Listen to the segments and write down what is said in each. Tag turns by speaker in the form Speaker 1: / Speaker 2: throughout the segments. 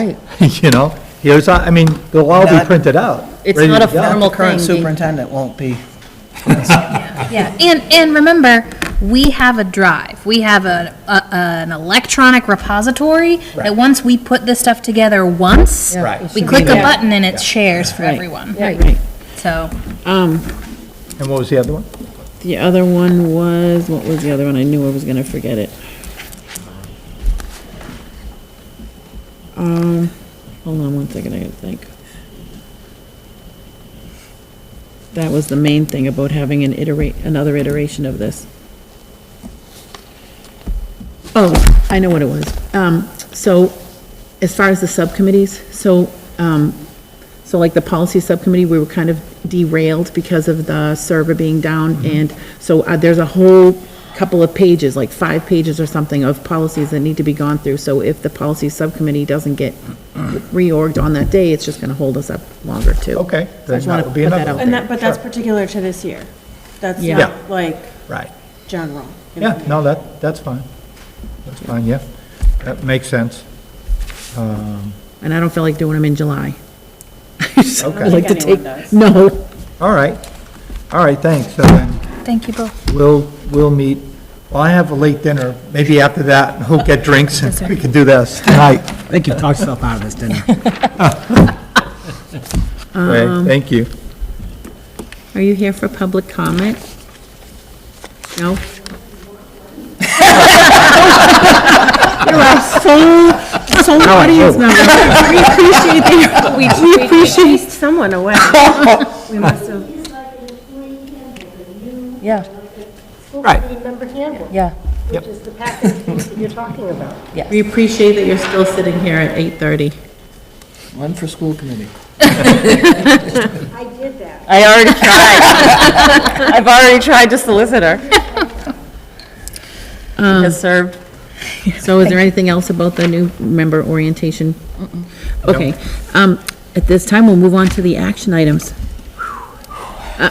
Speaker 1: you know? Here's, I mean, they'll all be
Speaker 2: Not-
Speaker 1: printed out.
Speaker 3: It's
Speaker 1: ready
Speaker 3: not
Speaker 1: to
Speaker 3: a
Speaker 1: go.
Speaker 3: formal
Speaker 2: The current
Speaker 3: thing. the-
Speaker 2: superintendent won't be,
Speaker 4: Yeah, and, and remember, we have a drive, we have a, a, an electronic repository, that once we put this stuff together once,
Speaker 3: Yeah, Right. it
Speaker 4: we
Speaker 3: should
Speaker 4: click
Speaker 3: be
Speaker 4: a
Speaker 3: there.
Speaker 4: button and it shares for everyone,
Speaker 3: Right.
Speaker 4: so.
Speaker 5: Um,
Speaker 1: And what was the other one?
Speaker 5: the other one was, what was the other one? I knew I was gonna forget it. Um, hold on one second, I gotta think. That was the main thing about having an iterate, another iteration of this. Oh, I know what it was. Um, so, as far as the subcommittees, so, um, so like the policy subcommittee, we were kind of derailed because of the server
Speaker 1: Mm-hmm.
Speaker 5: being down, and so uh, there's a whole couple of pages, like five pages or something, of policies that need to be gone through, so if the policy subcommittee doesn't get reorged on that day, it's just gonna hold us up longer, too.
Speaker 1: Okay,
Speaker 5: So I
Speaker 1: then
Speaker 5: just wanna
Speaker 1: that would be
Speaker 5: put that
Speaker 1: another
Speaker 5: out
Speaker 1: one.
Speaker 6: And that, but that's
Speaker 1: Sure.
Speaker 6: particular to this year. That's
Speaker 5: Yeah.
Speaker 1: Yeah.
Speaker 6: not like
Speaker 1: Right.
Speaker 6: general.
Speaker 1: Yeah, no, that, that's fine. That's fine, yeah. That makes sense. Um,
Speaker 5: And I don't feel like doing them in July. I just don't
Speaker 1: Okay. I
Speaker 5: like
Speaker 6: think
Speaker 5: to
Speaker 6: anyone
Speaker 5: take-
Speaker 6: does.
Speaker 5: No,
Speaker 1: All right, all right, thanks. So then
Speaker 4: Thank you both.
Speaker 1: we'll, we'll meet, well, I have a late dinner, maybe after that, we'll get drinks and we can do this tonight.
Speaker 7: I think you've talked yourself out of this, didn't you?
Speaker 1: Okay, thank you.
Speaker 5: are you here for public comment? No? You're our sole, sole audience member. We appreciate that, you're- we appreciate,
Speaker 6: someone away. We must have.
Speaker 8: It's like an employee handbook, a new
Speaker 3: Yeah,
Speaker 8: school
Speaker 1: Right.
Speaker 8: committee member handbook,
Speaker 3: yeah,
Speaker 8: which is the package that you're talking about.
Speaker 5: we appreciate that you're still sitting here at 8:30.
Speaker 2: one for school committee.
Speaker 8: I did that.
Speaker 3: I already tried. I've already tried to solicit her. Has served.
Speaker 5: So is there anything else about the new member orientation? Okay, um, at this time, we'll move on to the action items. Uh,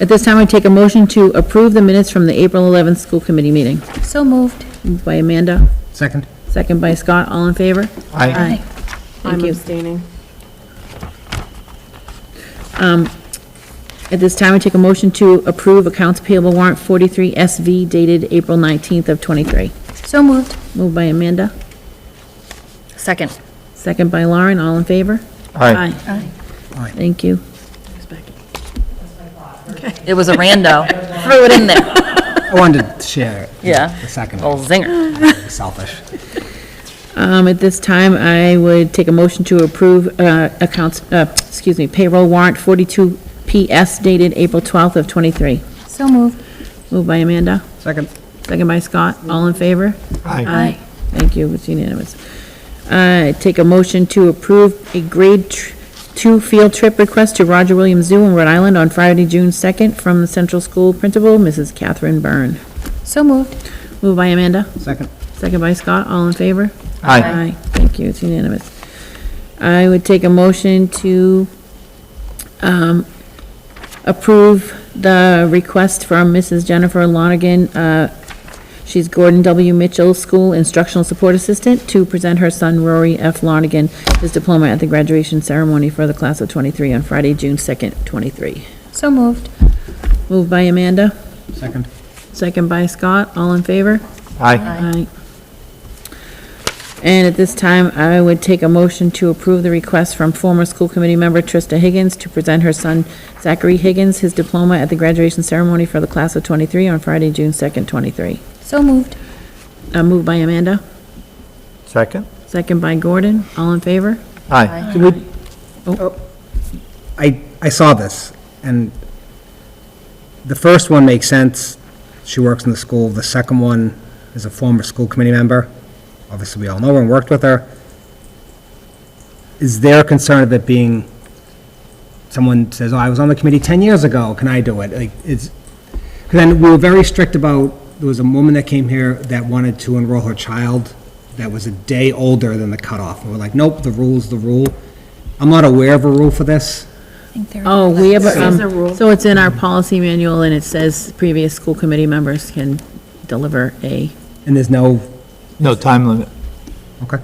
Speaker 5: At this time, I take a motion to approve the minutes from the April 11th school committee meeting.
Speaker 4: So moved.
Speaker 5: Moved by Amanda,
Speaker 7: Second?
Speaker 5: second by Scott, all in favor?
Speaker 1: I,
Speaker 5: Thank
Speaker 6: I'm
Speaker 5: you.
Speaker 6: abstaining.
Speaker 5: At this time, I take a motion to approve accounts payable warrant 43 SV dated April 19th of 23.
Speaker 4: So moved.
Speaker 5: Moved by Amanda,
Speaker 3: Second.
Speaker 5: second by Lauren, all in favor?
Speaker 1: I,
Speaker 5: Thank you.
Speaker 3: It was a rando. Threw it in there.
Speaker 7: I wanted to share it.
Speaker 3: Yeah.
Speaker 7: The second,
Speaker 3: Old zinger.
Speaker 7: selfish.
Speaker 5: Um, at this time, I would take a motion to approve, uh, accounts, uh, excuse me, payroll warrant forty-two PS dated April twelfth of twenty-three.
Speaker 4: So moved.
Speaker 5: Moved by Amanda,
Speaker 7: Second?
Speaker 5: second by Scott, all in favor?
Speaker 1: I,
Speaker 5: Aye. Thank you, it's unanimous. Uh, take a motion to approve a grade tr- two field trip request to Roger Williams Zoo in Rhode Island on Friday, June second, from the central school principal, Mrs. Catherine Byrne.
Speaker 4: So moved.
Speaker 5: Moved by Amanda,
Speaker 7: Second?
Speaker 5: second by Scott, all in favor?
Speaker 1: I,
Speaker 5: Aye, thank you, it's unanimous. I would take a motion to um, approve the request from Mrs. Jennifer Lonigan. uh, She's Gordon W. Mitchell School Instructional Support Assistant, to present her son Rory F. Lonigan his diploma at the graduation ceremony for the class of 23 on Friday, June 2nd, 23.
Speaker 4: So moved.
Speaker 5: Moved by Amanda,
Speaker 7: Second?
Speaker 5: second by Scott, all in favor?
Speaker 1: I,
Speaker 5: Aye. And at this time, I would take a motion to approve the request from former school committee member Trista Higgins to present her son Zachary Higgins his diploma at the graduation ceremony for the class of 23 on Friday, June 2nd, 23.
Speaker 4: So moved.
Speaker 5: Uh, Moved by Amanda,
Speaker 1: second,
Speaker 5: second by Gordon. All in favor?
Speaker 1: I.
Speaker 7: I, I saw this, and the first one makes sense. She works in the school. The second one is a former school committee member. Obviously, we all know her and worked with her. Is there a concern of it being, someone says, oh, I was on the committee 10 years ago, can I do it? Like, it's, because then we were very strict about, there was a woman that came here that wanted to enroll her child that was a day older than the cutoff. And we're like, nope, the rule's the rule. I'm not aware of a rule for this.
Speaker 5: Oh, we have, a,
Speaker 6: a
Speaker 5: um,
Speaker 6: rule.
Speaker 5: so it's in our policy manual, and it says previous school committee members can deliver a,
Speaker 7: And there's no,
Speaker 1: No time limit.
Speaker 7: okay.